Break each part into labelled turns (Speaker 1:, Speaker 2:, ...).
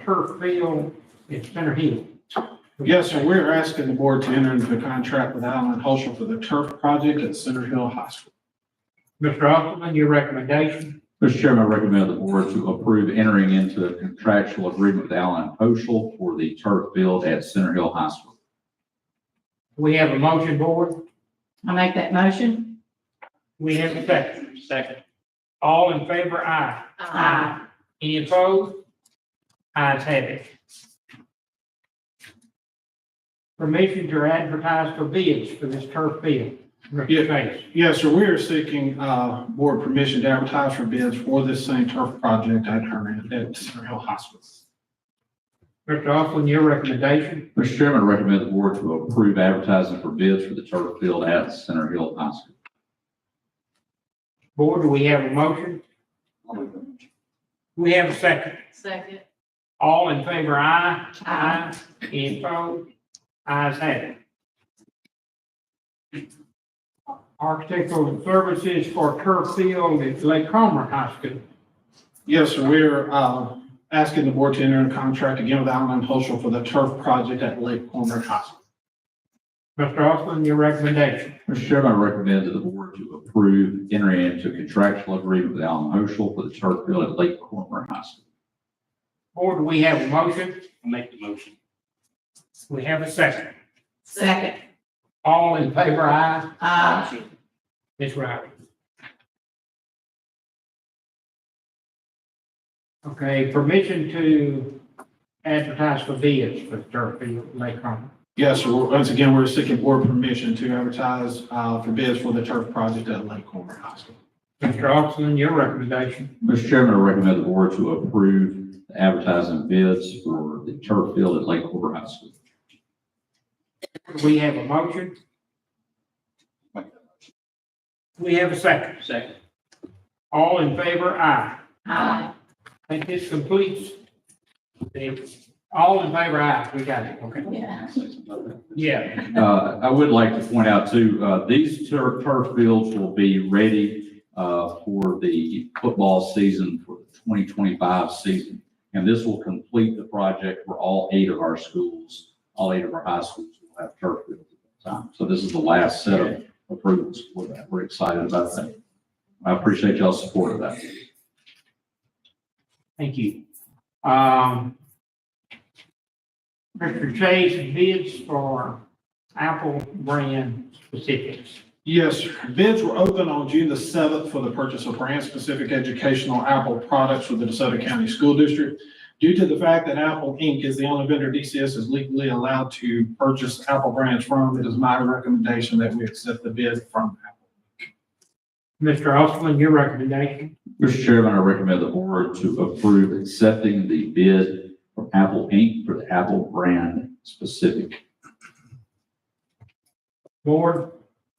Speaker 1: turf field at Center Hill.
Speaker 2: Yes, sir. We're asking the board to enter into a contract with Allen Holsham for the turf project at Center Hill High School.
Speaker 1: Mr. Osterman, your recommendation?
Speaker 3: Mr. Chairman, I recommend the board to approve entering into a contractual agreement with Allen Oshel for the turf field at Center Hill High School.
Speaker 1: We have a motion, board.
Speaker 4: I make that motion?
Speaker 1: We have a second. Second. All in favor, aye.
Speaker 4: Aye.
Speaker 1: Any opposed? Ayes have it. Permission to advertise for bids for this turf field. Mr.
Speaker 2: Yeah.
Speaker 1: Chase.
Speaker 2: Yes, sir. We are seeking, uh, board permission to advertise for bids for this same turf project at her, at Center Hill High School.
Speaker 1: Mr. Osterman, your recommendation?
Speaker 3: Mr. Chairman, I recommend the board to approve advertising for bids for the turf field at Center Hill High School.
Speaker 1: Board, do we have a motion? We have a second.
Speaker 4: Second.
Speaker 1: All in favor, aye.
Speaker 4: Aye.
Speaker 1: Any opposed? Ayes have it. Architectural services for turf field at Lake Comer High School.
Speaker 2: Yes, sir. We're, uh, asking the board to enter into a contract again with Allen Holsham for the turf project at Lake Corner High School.
Speaker 1: Mr. Austin, your recommendation.
Speaker 3: Mr. Chairman, I recommend to the board to approve entering into a contractual agreement with Allen Oshel for the turf field at Lake Cornwood High School.
Speaker 1: Board, do we have a motion? I'll make the motion. We have a second.
Speaker 4: Second.
Speaker 1: All in favor, aye.
Speaker 4: Aye.
Speaker 1: Ms. Riley. Okay, permission to advertise for bids for turf field, at Lake Comer.
Speaker 2: Yes, sir. Once again, we're seeking board permission to advertise, uh, for bids for the turf project at Lake Corner High School.
Speaker 1: Mr. Austin, your recommendation.
Speaker 3: Mr. Chairman, I recommend the board to approve advertising bids for the turf field at Lake Cornwood High School.
Speaker 1: Do we have a motion? We have a second. Second. All in favor, aye.
Speaker 4: Aye.
Speaker 1: I think this completes. the- All in favor, aye, we got it, okay?
Speaker 4: Yeah.
Speaker 1: Yeah,
Speaker 3: Uh, I would like to point out too, uh, these turf, turf fields will be ready, uh, for the football season for the twenty twenty-five season. And this will complete the project for all eight of our schools, all eight of our high schools will have turf fields at that time. So this is the last set of approvals for that. We're excited about that. I appreciate y'all's support of that.
Speaker 1: thank you. Um, Mr. Chase, bids for Apple brand specifics.
Speaker 2: Yes, sir. bids were open on June the seventh for the purchase of brand-specific educational Apple products for the DeSoto County School District. Due to the fact that Apple Inc. is the only vendor DCS is legally allowed to purchase Apple brands from, it is my recommendation that we accept the bid from Apple.
Speaker 1: Mr. Austin, your recommendation,
Speaker 3: Mr. Chairman, I recommend the board to approve accepting the bid from Apple Inc. for the Apple brand specific.
Speaker 1: board,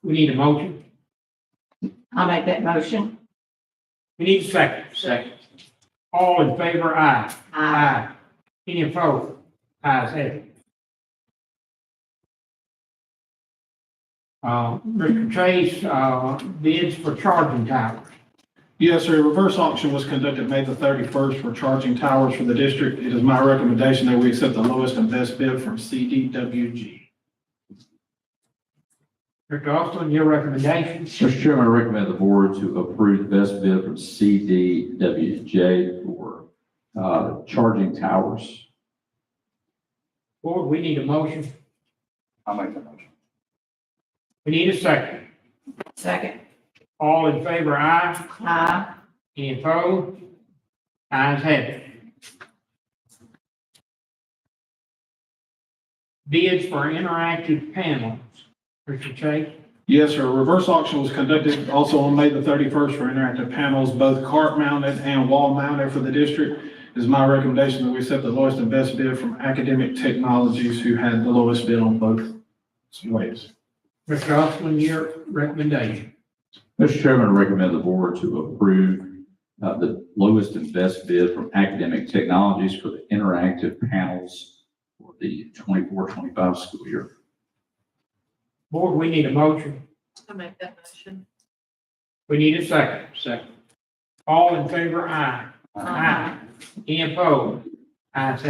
Speaker 1: we need a motion,
Speaker 4: I make that motion?
Speaker 1: we need a second. Second. All in favor, aye. Aye. Any opposed? Ayes have it. Uh, Mr. Chase, uh, bids for charging towers.
Speaker 2: Yes, sir, reverse auction was conducted May the thirty-first for charging towers for the district. It is my recommendation that we accept the lowest and best bid from CDWG.
Speaker 1: Mr. Austin, your recommendation?
Speaker 3: Mr. Chairman, I recommend the board to approve the best bid from CDWJ for uh, charging towers.
Speaker 1: Board, we need a motion.
Speaker 3: I'll make that motion.
Speaker 1: We need a second.
Speaker 4: Second.
Speaker 1: All in favor, aye.
Speaker 4: Aye.
Speaker 1: Any opposed? Ayes have it. Bids for interactive panels. Mr. Chase?
Speaker 2: Yes, sir. Reverse auction was conducted also on May the 31st for interactive panels, both cart mounted and wall mounted for the district. It is my recommendation that we accept the lowest and best bid from Academic Technologies, who had the lowest bid on both ways.
Speaker 1: Mr. Austin, your recommendation?
Speaker 3: Mr. Chairman, I recommend the board to approve uh, the lowest and best bid from Academic Technologies for the interactive panels for the 24-25 school year.
Speaker 1: Board, we need a motion.
Speaker 4: I make that motion?
Speaker 1: We need a second. Second. All in favor, aye. Any opposed? Ayes have it.